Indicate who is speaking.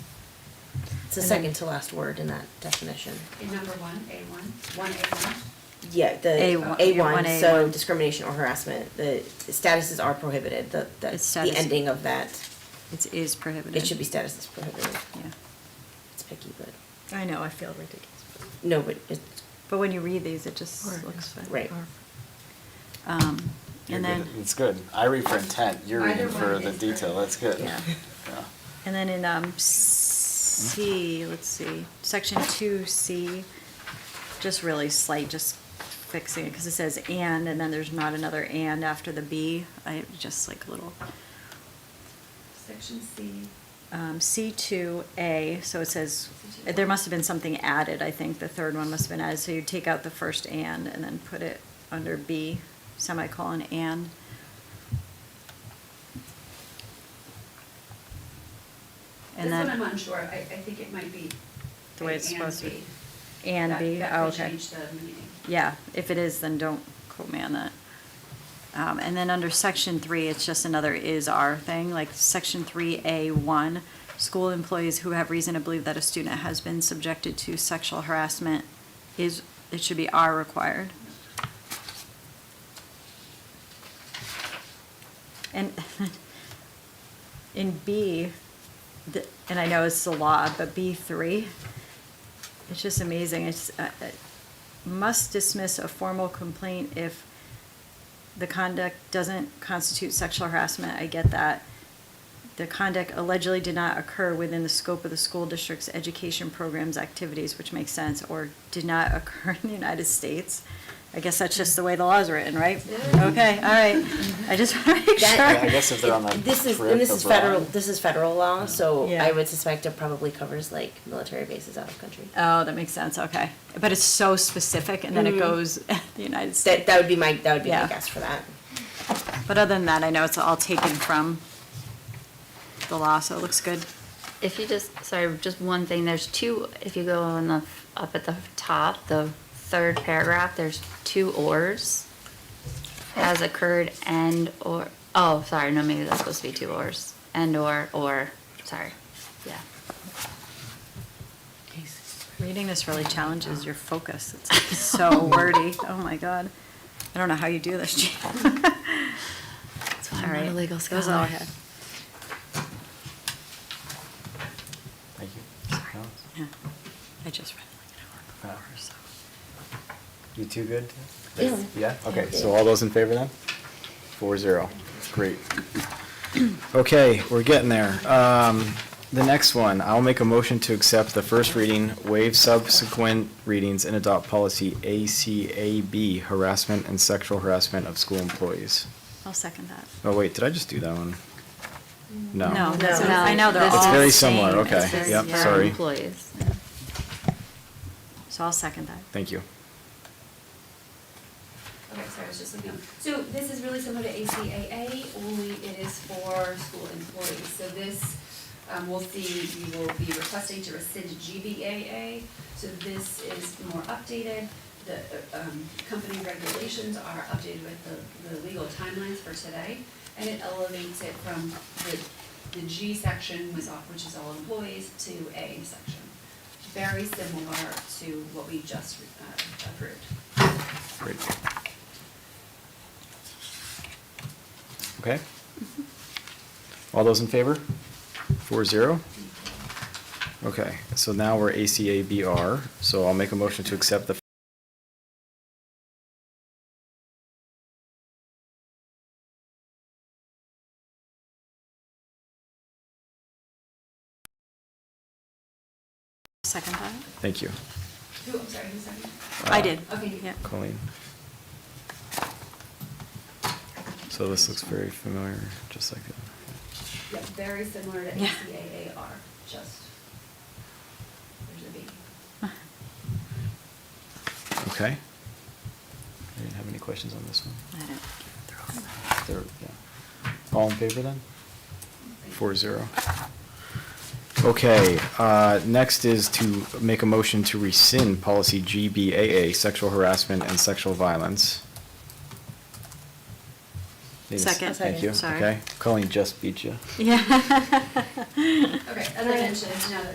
Speaker 1: It's the second to last word in that definition.
Speaker 2: In number one, A one, one A one,
Speaker 1: Yeah,
Speaker 3: A
Speaker 1: the
Speaker 3: one-
Speaker 1: A
Speaker 3: one,
Speaker 1: one,
Speaker 3: A
Speaker 1: so
Speaker 3: one.
Speaker 1: discrimination or harassment, the statuses are prohibited, the,
Speaker 3: It's
Speaker 1: that's the
Speaker 3: status-
Speaker 1: ending of that.
Speaker 3: It is prohibited.
Speaker 1: It should be statuses prohibited.
Speaker 3: Yeah.
Speaker 1: It's picky, but,
Speaker 4: I know, I feel ridiculous.
Speaker 1: no, but it's,
Speaker 3: But when you read these, it just
Speaker 4: Or-
Speaker 3: looks fine.
Speaker 1: right.
Speaker 3: Um,
Speaker 5: You're
Speaker 3: and
Speaker 5: good.
Speaker 3: then,
Speaker 5: It's good. I read for intent, you're
Speaker 2: Either
Speaker 5: reading for
Speaker 2: one
Speaker 5: the
Speaker 2: is great.
Speaker 5: detail, that's good.
Speaker 3: Yeah.
Speaker 5: Yeah.
Speaker 3: and then in, um, C, let's see, section two C, just really slight, just fixing it, cause it says and, and then there's not another and after the B. I, just like a little,
Speaker 2: section C.
Speaker 3: um, C two A, so it says, there must have been something added, I think, the third one must have been added, so you take out the first and and then put it under B, semicolon and.
Speaker 2: This
Speaker 3: And
Speaker 2: one
Speaker 3: then.
Speaker 2: I'm unsure, I, I think it might be.
Speaker 3: The way it's
Speaker 2: A
Speaker 3: supposed to be.
Speaker 2: And
Speaker 3: And
Speaker 2: B.
Speaker 3: B,
Speaker 2: That-
Speaker 3: oh,
Speaker 2: That could
Speaker 3: okay.
Speaker 2: change the meaning.
Speaker 3: Yeah, if it is, then don't quote me on that. Um, and then under section three, it's just another is our thing, like section three A one. School employees who have reason to believe that a student has been subjected to sexual harassment is, it should be are required. And in B, the- and I know it's the law, but B three, it's just amazing. It's, uh, uh, must dismiss a formal complaint if the conduct doesn't constitute sexual harassment. I get that. The conduct allegedly did not occur within the scope of the school district's education programs activities, which makes sense, or did not occur in the United States. I guess that's just the way the law is written, right? Okay, all right. I just want to make
Speaker 1: That-
Speaker 3: sure.
Speaker 5: Yeah, I guess if they're on a
Speaker 1: This is,
Speaker 5: trip
Speaker 1: and this is
Speaker 5: abroad.
Speaker 1: federal, this is federal law, so
Speaker 3: Yeah.
Speaker 1: I would suspect it probably covers like military bases out of country.
Speaker 3: Oh, that makes sense, okay. But it's so specific, and then it goes, the United
Speaker 1: Mm-hmm. That,
Speaker 3: States.
Speaker 1: that would be my, that would be my
Speaker 3: Yeah.
Speaker 1: guess for that.
Speaker 3: But other than that, I know it's all taken from the law, so it looks good.
Speaker 6: If you just, sorry, just one thing, there's two, if you go on the, up at the top, the third paragraph, there's two ors. Has occurred and or, oh, sorry, no, maybe that's supposed to be two ors, and or, or, sorry, yeah.
Speaker 3: Reading this really challenges your focus. It's like so wordy. Oh, my God. I don't know how you do this, Jean.
Speaker 6: That's why
Speaker 3: All
Speaker 6: I'm not
Speaker 3: right.
Speaker 6: a legal
Speaker 3: That was all I
Speaker 6: scholar.
Speaker 3: had.
Speaker 5: Thank you.
Speaker 3: Sorry.
Speaker 5: No?
Speaker 3: Yeah. I just read it like an hour before, so.
Speaker 5: You too good?
Speaker 1: Yeah.
Speaker 5: Yeah, okay, so all those in favor then? Four zero, great. Okay, we're getting there. Um, the next one, I'll make a motion to accept the first reading, waive subsequent readings, and adopt policy ACAB, harassment and sexual harassment of school employees.
Speaker 3: I'll second that.
Speaker 5: Oh, wait, did I just do that one? No.
Speaker 3: No,
Speaker 1: No.
Speaker 3: so I know they're all
Speaker 6: It's
Speaker 3: the same.
Speaker 5: very similar, okay.
Speaker 3: It's very-
Speaker 5: Yep,
Speaker 3: yeah.
Speaker 6: For
Speaker 5: sorry.
Speaker 6: Employees.
Speaker 3: So I'll second that.
Speaker 5: Thank you.
Speaker 2: Okay, sorry, I was just looking. up. So this is really similar to ACAA, only it is for school employees. So this, um, we'll see, you will be requesting to rescind GBAA. So this is more updated. The, uh, um, company regulations are updated with the, the legal timelines for today. And it elevates it from the, the G section was off, which is all employees, to A section. Very similar to what we just, uh, approved.
Speaker 5: Great. Okay. All those in favor? Four zero? Okay, so now we're ACABR, so I'll make a motion to accept the
Speaker 3: Second that?
Speaker 5: Thank you,
Speaker 2: Who, I'm sorry, who's second?
Speaker 3: I did.
Speaker 2: okay.
Speaker 3: Yeah.
Speaker 5: Colleen. So this looks very familiar, just like that.
Speaker 2: Yeah, very similar to
Speaker 3: Yeah.
Speaker 2: ACAAR, just, there's a B.
Speaker 5: Okay. I didn't have any questions on this one.
Speaker 3: I don't-
Speaker 5: They're- yeah. All in favor then? Four zero. Okay, uh, next is to make a motion to rescind policy GBAA, sexual harassment and sexual violence. Need a s-
Speaker 3: Second.
Speaker 5: Thank you,
Speaker 3: Sorry.
Speaker 5: okay. Colleen just beat you.
Speaker 3: Yeah.
Speaker 2: Okay, as I mentioned, now that